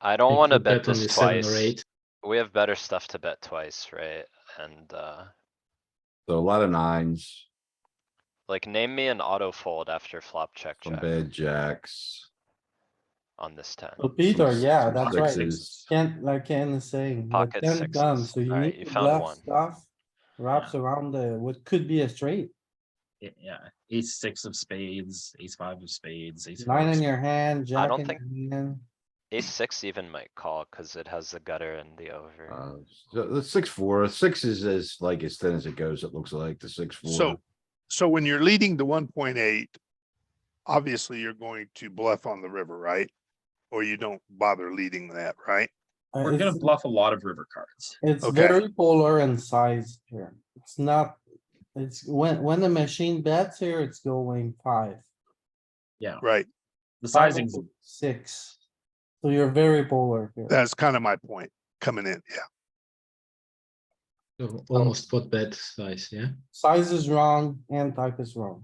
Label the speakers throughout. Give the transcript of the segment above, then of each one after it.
Speaker 1: I don't wanna
Speaker 2: could
Speaker 1: bet
Speaker 2: only
Speaker 1: this
Speaker 2: seven or
Speaker 1: twice.
Speaker 2: eight.
Speaker 1: We have better stuff to bet twice, right? And, uh,
Speaker 3: So a lot of nines,
Speaker 1: like name me an auto fold after flop check
Speaker 3: some
Speaker 1: check
Speaker 3: bad jacks.
Speaker 1: on this ten.
Speaker 4: So Peter,
Speaker 3: some-
Speaker 4: yeah,
Speaker 3: some
Speaker 4: that's right.
Speaker 3: sixes.
Speaker 4: Can't, like Ken is saying, with
Speaker 1: Pocket
Speaker 4: ten done,
Speaker 1: sixes.
Speaker 4: so you
Speaker 1: Alright, you
Speaker 4: need to
Speaker 1: found
Speaker 4: bluff
Speaker 1: one.
Speaker 4: stuff. Wraps around the, what could be a straight,
Speaker 5: Y- Yeah, ace six of spades, ace five of spades, ace. four
Speaker 4: nine
Speaker 5: of
Speaker 4: in
Speaker 5: sp-
Speaker 4: your hand, jack
Speaker 1: don't
Speaker 4: in
Speaker 1: think-
Speaker 4: your hand.
Speaker 1: Ace six even might call, cause it has the gutter and the over.
Speaker 3: Uh, so the six, four, six is as like as thin as it goes, it looks like the six, four.
Speaker 6: So, so when you're leading to one point eight, obviously you're going to bluff on the river, right? Or you don't bother leading that, right?
Speaker 4: Uh,
Speaker 5: We're gonna
Speaker 4: it's-
Speaker 5: bluff a lot of river cards.
Speaker 4: It's
Speaker 6: Okay.
Speaker 4: very polar in size here. It's not, it's when, when the machine bets here, it's going five.
Speaker 5: Yeah,
Speaker 6: Right,
Speaker 5: the
Speaker 4: five,
Speaker 5: sizing's
Speaker 4: Six. So you're very polar here.
Speaker 6: that's kind of my point coming in, yeah.
Speaker 2: So Almost spot bet size, yeah?
Speaker 4: Size is wrong and type is wrong.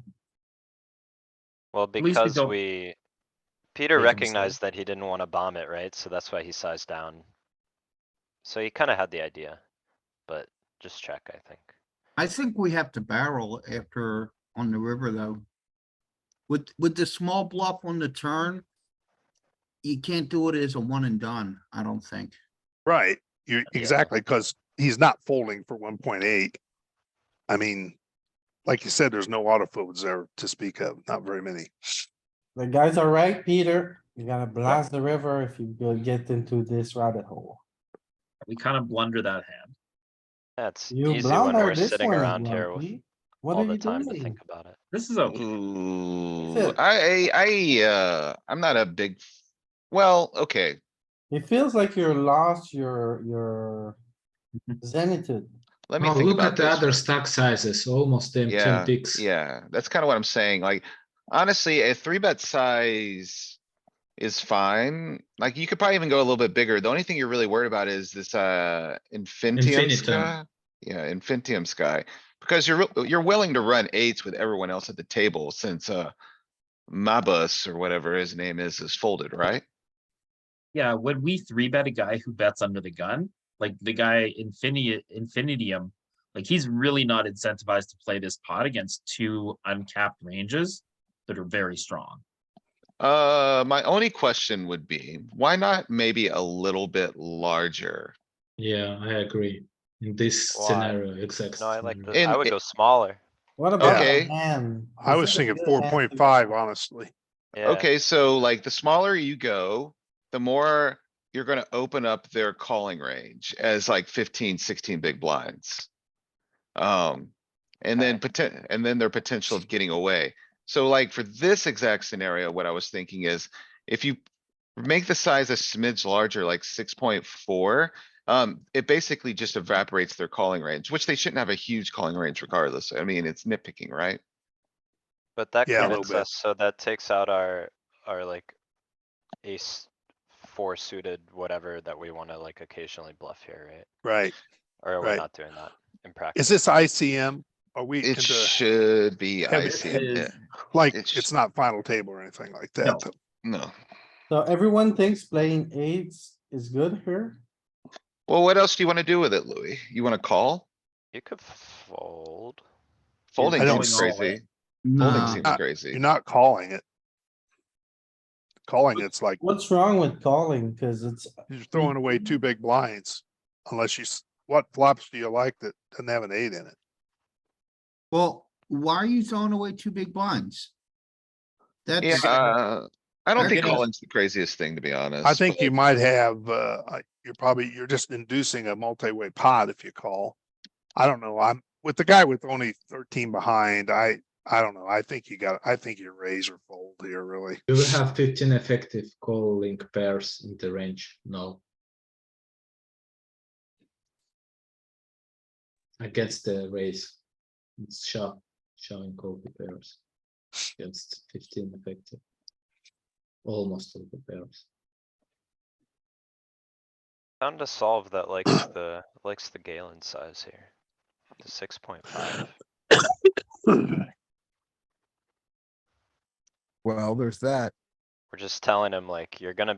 Speaker 1: Well,
Speaker 5: least we
Speaker 1: because
Speaker 5: don't
Speaker 1: we, Peter
Speaker 5: make a mistake.
Speaker 1: recognized that he didn't wanna bomb it, right? So that's why he sized down. So he kinda had the idea, but just check, I think.
Speaker 7: I think we have to barrel after on the river though. With, with the small bluff on the turn. You can't do it as a one and done, I don't think.
Speaker 6: Right, you,
Speaker 5: Yeah.
Speaker 6: exactly, because he's not folding for one point eight. I mean, like you said, there's no auto folds there to speak of, not very many.
Speaker 4: The guys are right, Peter. You gotta blast the river if you go get into this rabbit hole.
Speaker 5: we kind of blunder that hand.
Speaker 1: That's
Speaker 4: You
Speaker 1: easy when we're
Speaker 4: blunder this
Speaker 1: sitting
Speaker 4: one as
Speaker 1: around here
Speaker 4: well.
Speaker 1: with
Speaker 4: Pete. What
Speaker 1: all
Speaker 4: are
Speaker 1: the
Speaker 4: you
Speaker 1: time to
Speaker 4: doing?
Speaker 1: think about it.
Speaker 5: This is
Speaker 2: Mm-hmm.
Speaker 5: okay.
Speaker 8: Ooh,
Speaker 4: Sit.
Speaker 8: I, I, I, uh, I'm not a big, f- well, okay,
Speaker 4: It feels like you're lost, you're, you're zenith.
Speaker 8: let me
Speaker 2: Now
Speaker 8: think
Speaker 2: look
Speaker 8: about
Speaker 2: at the other
Speaker 8: this.
Speaker 2: stack sizes, almost them ten
Speaker 8: Yeah,
Speaker 2: bigs.
Speaker 8: Yeah, that's kinda what I'm saying, like, honestly, a three bet size is fine. Like, you could probably even go a little bit bigger. The only thing you're really worried about is this, uh, Infinitium
Speaker 2: Infinitum.
Speaker 8: sky. Yeah, Infinitium sky, because you're, wi- you're willing to run eights with everyone else at the table since, uh, Mabus or whatever his name is, is folded, right?
Speaker 5: Yeah, when we three bet a guy who bets under the gun, like the guy Infinity Infinitium, like he's really not incentivized to play this pot against two uncapped ranges that are very strong.
Speaker 8: Uh, my only question would be, why not maybe a little bit larger?
Speaker 2: Yeah, I agree. In this
Speaker 1: Why?
Speaker 2: scenario, exactly.
Speaker 1: No, I like
Speaker 2: scenario.
Speaker 1: the, I
Speaker 8: And
Speaker 1: would
Speaker 8: it-
Speaker 1: go smaller.
Speaker 4: What about
Speaker 8: Okay.
Speaker 4: a hand?
Speaker 6: I
Speaker 4: This
Speaker 6: was
Speaker 4: is a
Speaker 6: thinking
Speaker 4: good
Speaker 6: four
Speaker 4: hand.
Speaker 6: point five, honestly.
Speaker 1: Yeah.
Speaker 8: Okay, so like the smaller you go, the more you're gonna open up their calling range as like 15, 16 big blinds. Um, and then poten- and then their potential of getting away. So like for this exact scenario, what I was thinking is if you make the size a smidge larger, like six point four, um, it basically just evaporates their calling range, which they shouldn't have a huge calling range regardless. I mean, it's nitpicking, right?
Speaker 1: But that
Speaker 6: Yeah, a little
Speaker 1: commits
Speaker 6: bit.
Speaker 1: us, so that takes out our, our like ace four suited, whatever that we wanna like occasionally bluff here, right?
Speaker 6: Right,
Speaker 1: Or we're
Speaker 6: Right.
Speaker 1: not doing that in practice.
Speaker 6: is this ICM? Are we,
Speaker 8: It
Speaker 6: into-
Speaker 8: should be
Speaker 6: Yeah, but
Speaker 5: This
Speaker 8: icy. yeah.
Speaker 5: is-
Speaker 6: like,
Speaker 8: it's-
Speaker 6: it's not final table or anything like
Speaker 5: No.
Speaker 6: that? though.
Speaker 8: No.
Speaker 4: So everyone thinks playing eights is good here?
Speaker 8: Well, what else do you wanna do with it, Louis? You wanna call?
Speaker 1: You could fold.
Speaker 8: Folding
Speaker 6: I don't
Speaker 8: seems
Speaker 5: know.
Speaker 8: crazy. Folding
Speaker 7: Nah,
Speaker 8: seems
Speaker 6: Uh, You're
Speaker 8: crazy.
Speaker 6: not calling it. Calling it's like,
Speaker 4: What's wrong with calling? Cause it's,
Speaker 6: you're throwing away two big blinds. Unless you, s- what flops do you like that doesn't have an eight in it?
Speaker 7: well, why are you throwing away two big blinds?
Speaker 8: Yeah,
Speaker 7: That's,
Speaker 8: uh, I don't
Speaker 7: They're
Speaker 8: think
Speaker 7: gonna-
Speaker 8: calling's the craziest thing, to be honest.
Speaker 6: I think
Speaker 8: but-
Speaker 6: you might have, uh, I- you're probably, you're just inducing a multi-way pot if you call. I don't know, I'm, with the guy with only thirteen behind, I, I don't know, I think you got, I think you raise or fold here, really.
Speaker 2: You will have fifteen effective calling pairs in the range, no? Against the raise, it's shot, showing call the pairs. Against fifteen effective. Almost all the pairs.
Speaker 1: Found a solve that likes the, likes the Galen size here. The six point five.
Speaker 9: Well, there's that.
Speaker 1: We're just telling him like, you're gonna